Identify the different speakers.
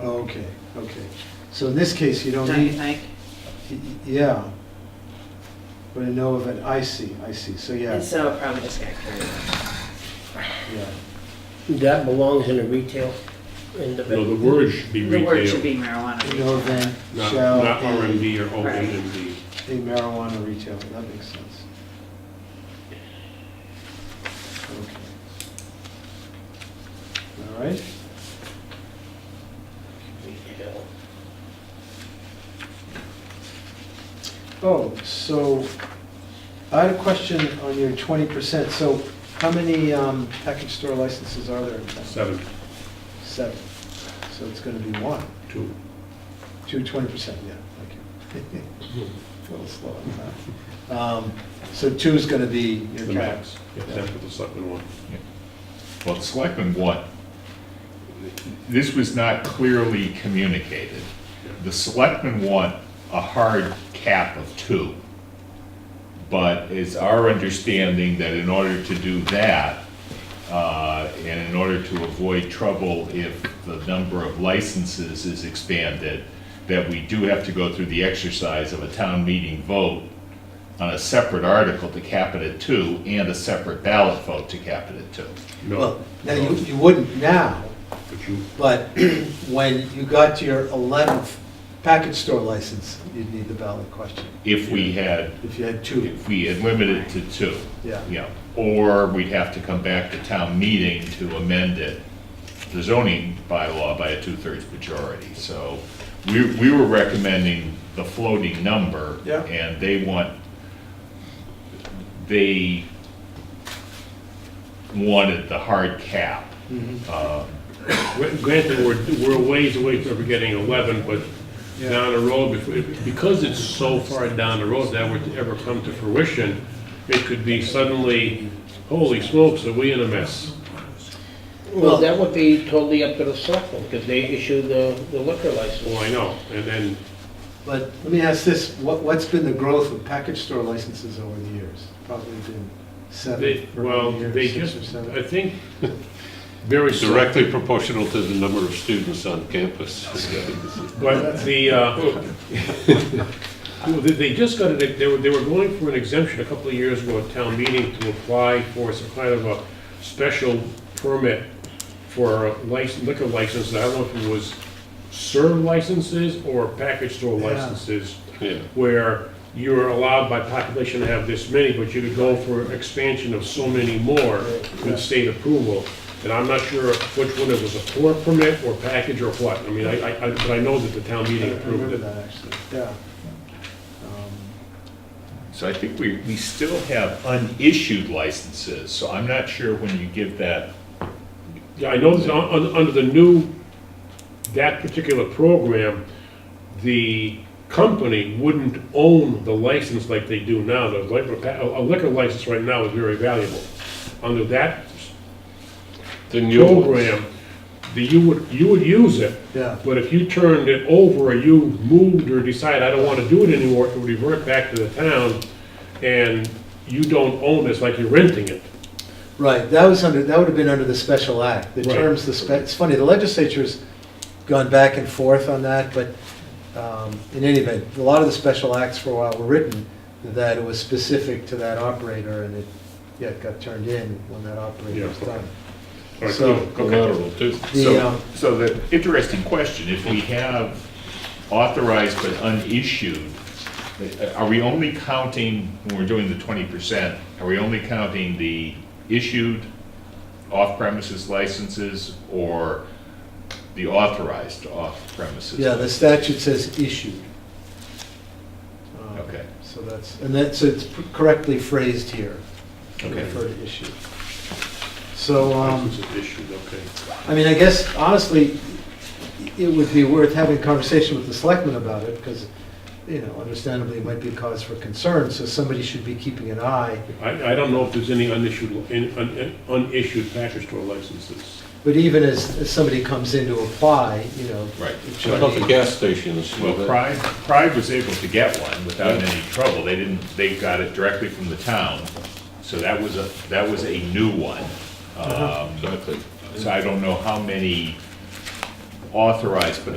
Speaker 1: Oh, okay, okay. So in this case, you don't
Speaker 2: Don't you
Speaker 1: need,
Speaker 2: think?
Speaker 1: y- yeah. But a no event, I see, I see, so yeah,
Speaker 2: And so it probably just got carried away.
Speaker 1: yeah.
Speaker 3: That belongs in a retail, in
Speaker 4: No,
Speaker 3: the,
Speaker 4: the word should be
Speaker 2: The word should
Speaker 4: retail,
Speaker 2: be marijuana
Speaker 1: No
Speaker 2: retail.
Speaker 1: event
Speaker 4: not,
Speaker 1: shall
Speaker 4: not
Speaker 1: be
Speaker 4: RMD or
Speaker 2: Right.
Speaker 4: OMMD.
Speaker 1: a marijuana retailer, that makes sense. Okay. All right,
Speaker 3: retail.
Speaker 1: oh, so I had a question on your twenty percent, so how many um, package store licenses are there in town?
Speaker 4: Seven,
Speaker 1: Seven, so it's gonna be one.
Speaker 4: two.
Speaker 1: Two twenty percent, yeah, thank you. A little slow on that. Um, So two's gonna be your
Speaker 4: The
Speaker 1: cap.
Speaker 4: max, except for the selectmen one.
Speaker 5: Well, the selectmen want, this was not clearly communicated. The selectmen want a hard cap of two. But it's our understanding that in order to do that, uh, and in order to avoid trouble if the number of licenses is expanded, that we do have to go through the exercise of a town meeting vote on a separate article to cap it at two and a separate ballot vote to cap it at two.
Speaker 4: No,
Speaker 1: Well, now, you, you wouldn't now,
Speaker 4: but you,
Speaker 1: but when you got to your eleventh package store license, you'd need the ballot question,
Speaker 5: If we had,
Speaker 1: if you had two.
Speaker 5: if we had limited to two.
Speaker 1: Yeah.
Speaker 5: Yeah, or we'd have to come back to town meeting to amend it, the zoning bylaw by a two-thirds majority. So we, we were recommending the floating number.
Speaker 1: Yeah.
Speaker 5: And they want, they wanted the hard cap. Uh,
Speaker 4: Gr- granted, we're, we're a ways away from ever getting 11, but
Speaker 1: Yeah.
Speaker 4: down the road, bef- because it's so far down the road that would ever come to fruition, it could be suddenly, holy smokes, are we in a mess?
Speaker 3: Well, that would be totally up to the selectmen, because they issue the the liquor
Speaker 4: Well,
Speaker 3: license.
Speaker 4: Oh, I know, and then,
Speaker 1: But let me ask this, what, what's been the growth of package store licenses over the years? Probably been
Speaker 4: they,
Speaker 1: seven
Speaker 4: well,
Speaker 1: or eight
Speaker 4: they
Speaker 1: years, six or
Speaker 4: just, I
Speaker 1: seven.
Speaker 4: think, very directly.
Speaker 6: Directly proportional to the number of students on campus.
Speaker 4: But the, uh, well, they- they just got, it- they were, they were going for an exemption a couple of years ago at town meeting to apply for some kind of a special permit for a lic- liquor license, I don't know if it was serve licenses or package store
Speaker 1: Yeah.
Speaker 4: licenses,
Speaker 6: Yeah.
Speaker 4: where you're allowed by population to have this many, but you could go for expansion of so many more with state approval. And I'm not sure which one it was, a pour permit or package or what. I mean, I, I, I- but I know that the town
Speaker 1: I
Speaker 4: meeting approved
Speaker 1: remember
Speaker 4: it.
Speaker 1: that, actually, yeah. Um,
Speaker 5: So I think we, we still have unissued licenses, so I'm not sure when you give that
Speaker 4: Yeah, I know that un- un- under the new, that particular program, the company wouldn't own the license like they do now. The liquor, pa- a a liquor license right now is very valuable. Under that
Speaker 6: The new ones.
Speaker 4: program, the, you would, you would use it.
Speaker 1: Yeah.
Speaker 4: But if you turned it over, or you moved or decided, I don't want to do it anymore, it would revert back to the town, and you don't own this, like you're renting it.
Speaker 1: Right, that was under, that would have been under the special act. The
Speaker 4: Right.
Speaker 1: terms, the spec, it's funny, the legislature's gone back and forth on that, but um, in any event, a lot of the special acts for a while were written that it was specific to that operator and it, yeah, it got turned in when that operator
Speaker 4: Yeah.
Speaker 1: was done.
Speaker 4: Or
Speaker 1: So-
Speaker 6: Collateral too.
Speaker 1: The,
Speaker 5: So,
Speaker 1: um,
Speaker 5: so the interesting question, if we have authorized but unissued, are we only counting, when we're doing the twenty percent, are we only counting the issued off-premises licenses or the authorized off-premises?
Speaker 1: Yeah, the statute says issued. Um,
Speaker 5: Okay.
Speaker 1: So that's, and that's, so it's correctly phrased here. to
Speaker 5: Okay.
Speaker 1: Refer to issued. So, um.
Speaker 4: License is issued, okay.
Speaker 1: I mean, I guess honestly, it would be worth having a conversation with the selectmen about it, because, you know, understandably, it might be a cause for concern, so somebody should be keeping an eye.
Speaker 4: I, I don't know if there's any unissued, in- un- unissued package store licenses.
Speaker 1: But even as, as somebody comes in to apply, you know.
Speaker 5: Right.
Speaker 1: it should
Speaker 6: What about the
Speaker 1: be-
Speaker 6: gas stations?
Speaker 5: Well, Pride, Pride was able to get one without any trouble. They didn't, they got it directly from the town. So that was a, that was a new one. Um,
Speaker 6: Exactly.
Speaker 5: So I don't know how many authorized but